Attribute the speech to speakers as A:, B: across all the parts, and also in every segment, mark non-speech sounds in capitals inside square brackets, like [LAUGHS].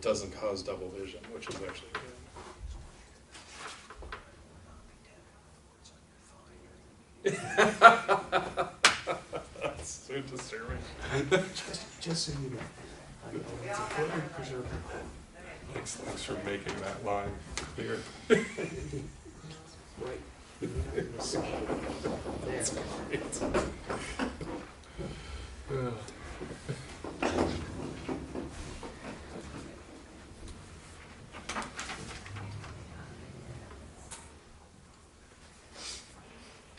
A: doesn't cause double vision, which is actually good. That's so disturbing.
B: Just, just so you know. I know It's important preserve.
C: Thanks, thanks for making that line clear.
B: Right. You're not gonna see it.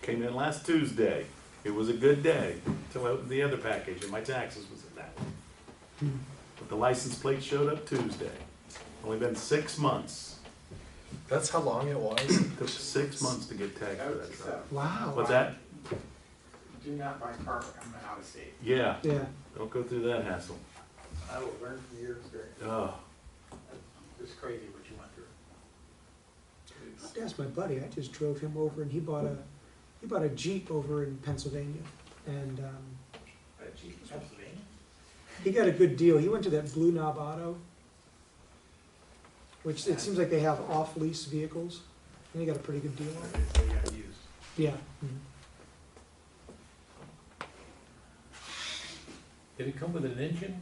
D: Came in last Tuesday. It was a good day until I opened the other package and my taxes was in that one. But the license plate showed up Tuesday. Only been six months.
A: That's how long it was?
D: Took six months to get tagged for that truck. But
E: Oh,
B: Wow.
D: that,
E: Do not buy carpet coming out of state.
D: yeah,
B: Yeah,
D: don't go through that hassle.
E: I will learn from your experience.
D: Oh,
E: It's crazy what you went through.
B: that's my buddy. I just drove him over and he bought a, he bought a Jeep over in Pennsylvania. And, um,
E: Uh, gee, Pennsylvania?
B: he got a good deal. He went to that Blue Knob Auto, which it seems like they have off-lease vehicles. And he got a pretty good deal on it.
E: They got used.
B: Yeah. mhm.
F: Did it come with an engine?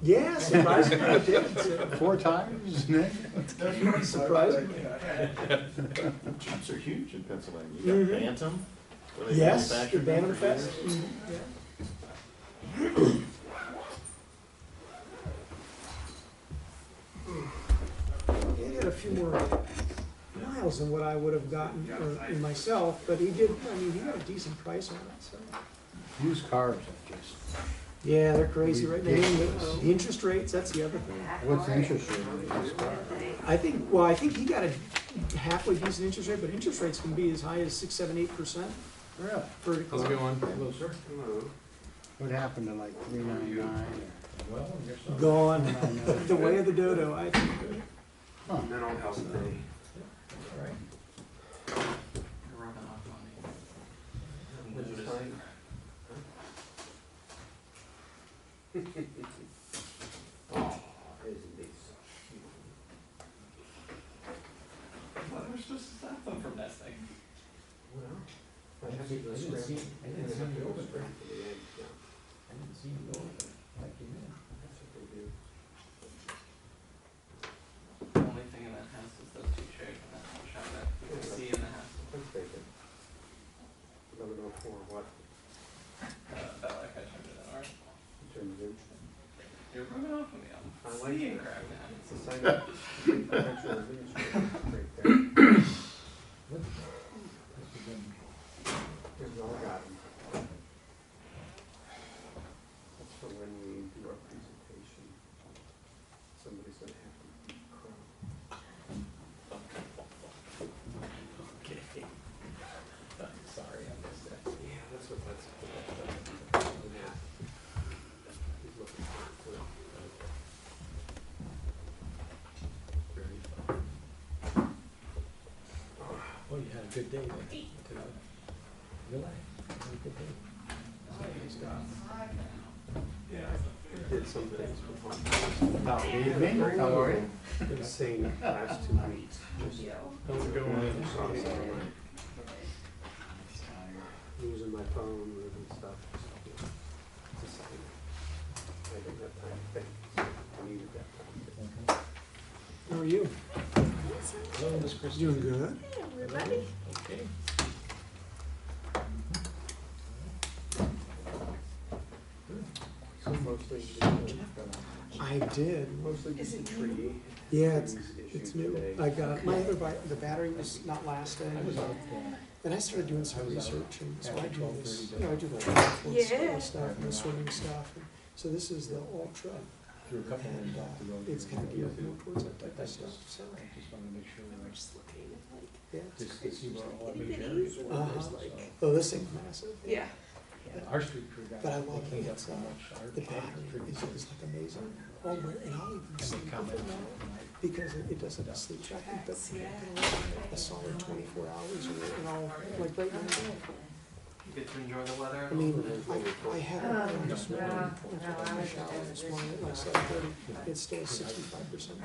B: Yeah, surprisingly it did. It's-
G: Four times, Nick?
E: That's pretty
B: surprising.
D: Jeeps are huge in Pennsylvania.
B: You got Mhm.
D: Bantam?
B: Yes, the Bantam Fest. mhm, yeah.
G: [CLEARS THROAT]
B: He had a few more miles than what I would have gotten, or in myself, but he did, I mean, he got a decent price on it, so.
G: Used cars are just,
B: Yeah, they're crazy right now.
G: Ridiculous.
B: uh, The interest rates, that's the other thing.
G: what's the interest rate on used cars?
B: I think, well, I think he got a halfway decent interest rate, but interest rates can be as high as six, seven, eight percent
G: Really?
B: for a car.
F: going?
G: What happened to like three nine nine
B: Gone. [LAUGHS]
G: or?
B: The way of the dodo, I think.
E: Mental health day. Running off money. Well, there's just a cell phone from that thing. The only thing in that house is those two chairs in that one shop that you can see in the house. Uh, about like I turned it on, alright. You're rubbing off on me, I'm seeing crap now.
H: That's for when we do our presentation. Somebody's gonna have to crawl.
E: Sorry, I missed that.
H: Yeah, that's what that's.
F: Well, you had a good day there tonight. Relax. Had a good day.
H: Did some things before.
G: Evening, Oh, how are you?
H: Been saying the last two weeks.
A: How's it going?
H: Losing my phone, losing stuff. just, you know, decided I didn't have time to think. I needed that time. to think.
B: How are you?
F: Hello, Miss Christie.
B: Doing good.
F: Okay.
H: So mostly just,
B: I did.
H: mostly just a tree.
B: Yeah, it's,
H: trees issue
B: it's new.
H: today.
B: I got, my other, bi- the battery was not lasting. And I started doing some research and so I do this, you know, I do the triathlon
I: Yeah.
B: stuff and the swimming stuff. and- So this is the ultra
F: Through a couple
B: and uh, it's kind of geared more towards that type of stuff, so,
F: Just wanted to make sure,
I: We're just looking at like
B: yeah.
F: just to see where all our
I: itty
F: big
I: bitties
F: areas
I: and
F: were.
B: Uh-huh.
I: there's like,
B: Oh, this thing's massive.
I: yeah.
F: Our street crew got.
B: But I
F: they
B: love
F: cleaned
B: it.
F: up
B: It's,
F: so
B: uh,
F: much. Our
B: The
F: trash
B: battery
F: crew
B: is,
F: did
B: is like amazing. Oh, my, and I'll even sleep
F: come
B: with it
F: in
B: now
F: tonight.
B: because it, it doesn't sleep. I think that's
I: Yeah.
B: a solid twenty-four hours or, and I'll, like right now,
E: get to enjoy the weather.
B: I mean, I, I had it this morning, after I got out this morning at like seven thirty, it's still sixty-five percent